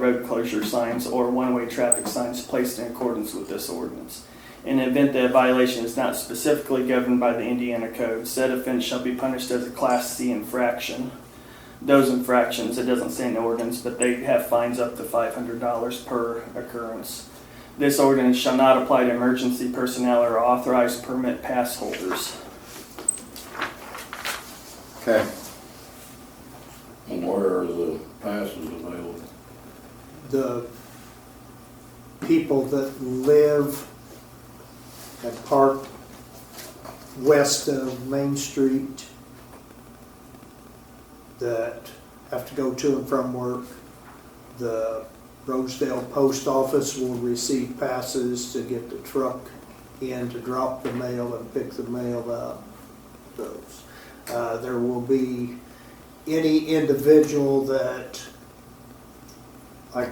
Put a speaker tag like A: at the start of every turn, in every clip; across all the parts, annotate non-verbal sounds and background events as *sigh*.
A: road closure signs or one-way traffic signs placed in accordance with this ordinance. In the event that a violation is not specifically governed by the Indiana code, said offense shall be punished as a Class C infraction. Those infractions, it doesn't say in the ordinance, but they have fines up to five hundred dollars per occurrence. This ordinance shall not apply to emergency personnel or authorized permit pass holders.
B: Okay,
C: And where are the passes available?
D: the people that live at Park west of Main Street that have to go to and from work, the Rosedale Post Office will receive passes to get the truck in to drop the mail and pick the mail up. Those. Uh, there will be any individual that like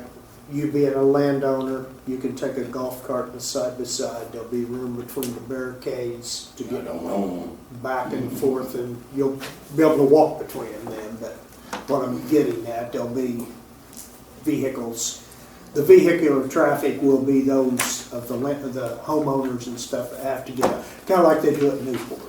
D: you being a landowner, you can take a golf cart and side by side, there'll be room between the barricades to
C: I
D: get
C: don't own
D: back and forth and you'll be able to walk between them, but what I'm getting at, there'll be vehicles. The vehicular traffic will be those of the, la- the homeowners and stuff that have to get out, kinda like they do at Newport.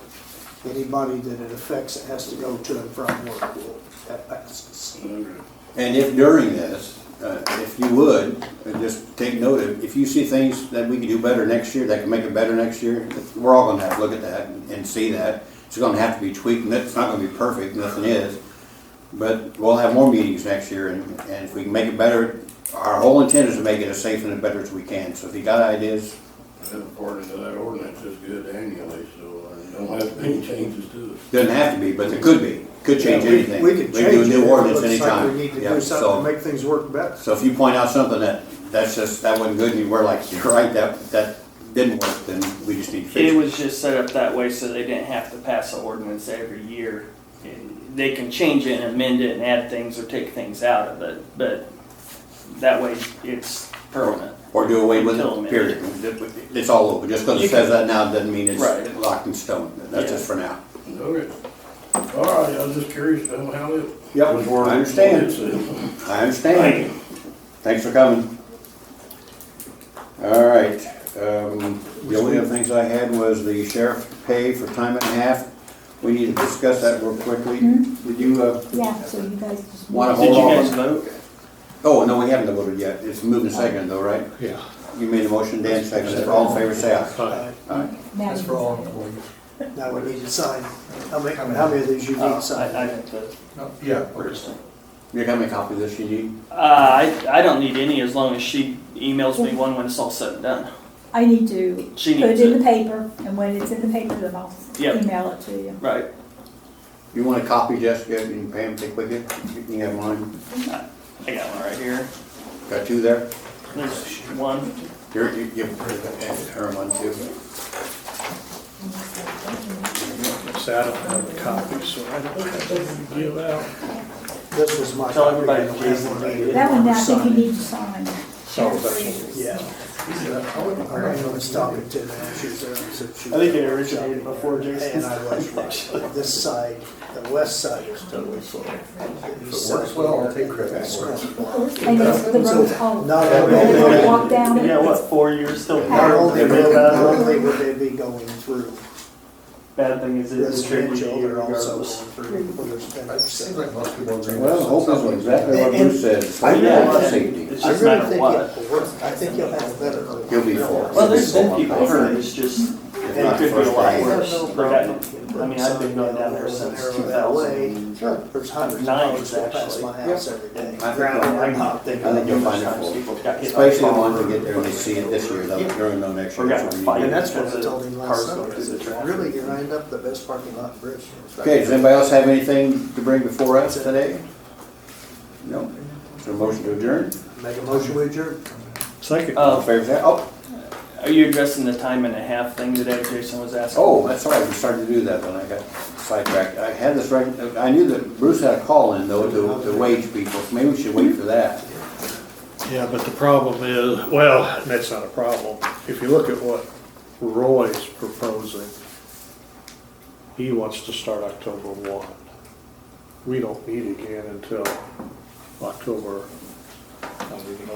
D: Anybody that it affects that has to go to and from work will have passes.
C: them.
B: and if during this, uh, if you would, uh, just take note of, if you see things that we can do better next year, that can make it better next year, we're all gonna have to look at that and see that. It's gonna have to be tweaked, and it's not gonna be perfect, nothing is. But we'll have more meetings next year, and, and if we can make it better, our whole intent is to make it as safe and as better as we can. So if you got ideas,
C: That part of that ordinance is good annually, so I don't have any changes to it.
B: doesn't have to be, but it could be, could change
D: Yeah, we-
B: anything.
D: We can change
B: do a
D: it.
B: new
D: if it
B: ordinance
D: looks like
B: anytime.
D: We need to
B: Yeah,
D: do
B: so-
D: something to make things work better.
B: So if you point out something that, that's just, that wasn't good, and you were like, you're right, that, that didn't work, then we just need to fix
A: It
B: it.
A: was just set up that way so they didn't have to pass an ordinance every year. They can change it and amend it and add things or take things out of it, but that way it's permanent.
B: Or do away with
A: Until
B: it, period. It's all over. Just because
A: You
B: it
A: can-
B: says that now doesn't mean
A: Right.
B: it's locked in stone. That's
A: Yeah.
B: just for now.
C: Okay. All right, I was just curious to know how it.
B: Yep,
C: was worded.
B: I understand.
C: It's, uh,
B: I understand. Thanks for coming. All right, um, the only other things I had was the sheriff pay for time and a half. We need to discuss that real quickly. Did you, uh,
E: Yeah, so you guys just.
B: Wanna
A: Did you
B: hold on?
A: guys vote?
B: oh, no, we haven't voted yet. It's moved and seconded though, right?
F: Yeah.
B: You made a motion, Dan seconded it. All in favor, say aye.
F: Hi.
B: Alright.
E: Now
G: That's
E: you
G: for all
E: decide.
G: employees.
D: Uh, Now we need to sign. How many, how many of these you need
A: Oh, I, I
D: signed?
A: didn't vote.
G: No, Yeah, we're just-
B: You got me a copy of this you need?
A: Uh, I, I don't need any as long as she emails me one when it's all said and done.
E: I need to
A: She
E: put it
A: needs
E: in
A: it,
E: the paper, and when it's in the paper, then I'll
A: Yep.
E: email it to you.
A: right?
B: You want a copy, Jessica, you can pay them, take with you? You can have mine.
A: I got one right here.
B: Got two there?
A: There's one.
B: Here, you, you, her one too.
F: So I don't have a copy, so I don't have to give out.
D: This was my.
A: Tell everybody
D: copy.
A: Jason needed it.
E: That one, I think you need to sign.
F: Sorry about that.
D: Yeah. I ran on this topic to them. She was there, so she-
A: I think it originated before Jason's
D: And I was
A: *laughs*
D: right. This side, the west side is totally full.
G: If it works well, I'll take credit for it.
E: And it's the road all.
D: Not
E: They're
D: only,
E: gonna walk down it.
A: Yeah, what, four years still?
D: not only, will- not
A: Bad
D: only would they be going through
A: thing is it's tricky
D: residential,
A: to
D: they're also
A: regardless.
D: going through where there's been
G: It seems like most people agree. with
B: Well, hope that's exactly what Bruce says.
D: I realize-
B: Safety.
A: It's just a matter of what.
D: I think you'll have better.
B: He'll be full.
A: Well, there's been people hurt, it's just,
B: If
A: it
B: not
A: could be a
B: first
A: lot
B: day.
A: worse. Like, I I mean, I've been going down there since two thousand.
D: There's hundreds of
A: Nine,
D: dollars that pass my house every day.
B: I think you'll-
A: I'm not thinking.
B: I think you'll find it full. Especially the ones that get there and they see it this year, they'll, they're gonna know next year.
A: Or got
B: what we need.
A: fired.
D: And that's what I told him last
A: Cars
D: summer,
A: going through the traffic.
D: really, you lined up the best parking lot in Bridgeville.
B: Okay, does anybody else have anything to bring before us today? No? Is there a motion to adjourn?
D: Make a motion with your,
F: Second.
B: All in
A: Uh,
B: favor, say aye. Oh,
A: are you addressing the time and a half thing today Jason was asking?
B: Oh, that's right, we started to do that when I got sidetracked. I had this, rec- I knew that Bruce had a call in though to, to wage people, so maybe we should wait for that.
F: Yeah, but the problem is, well, that's not a problem. If you look at what Roy's proposing, he wants to start October one. We don't meet again until October, I'll leave it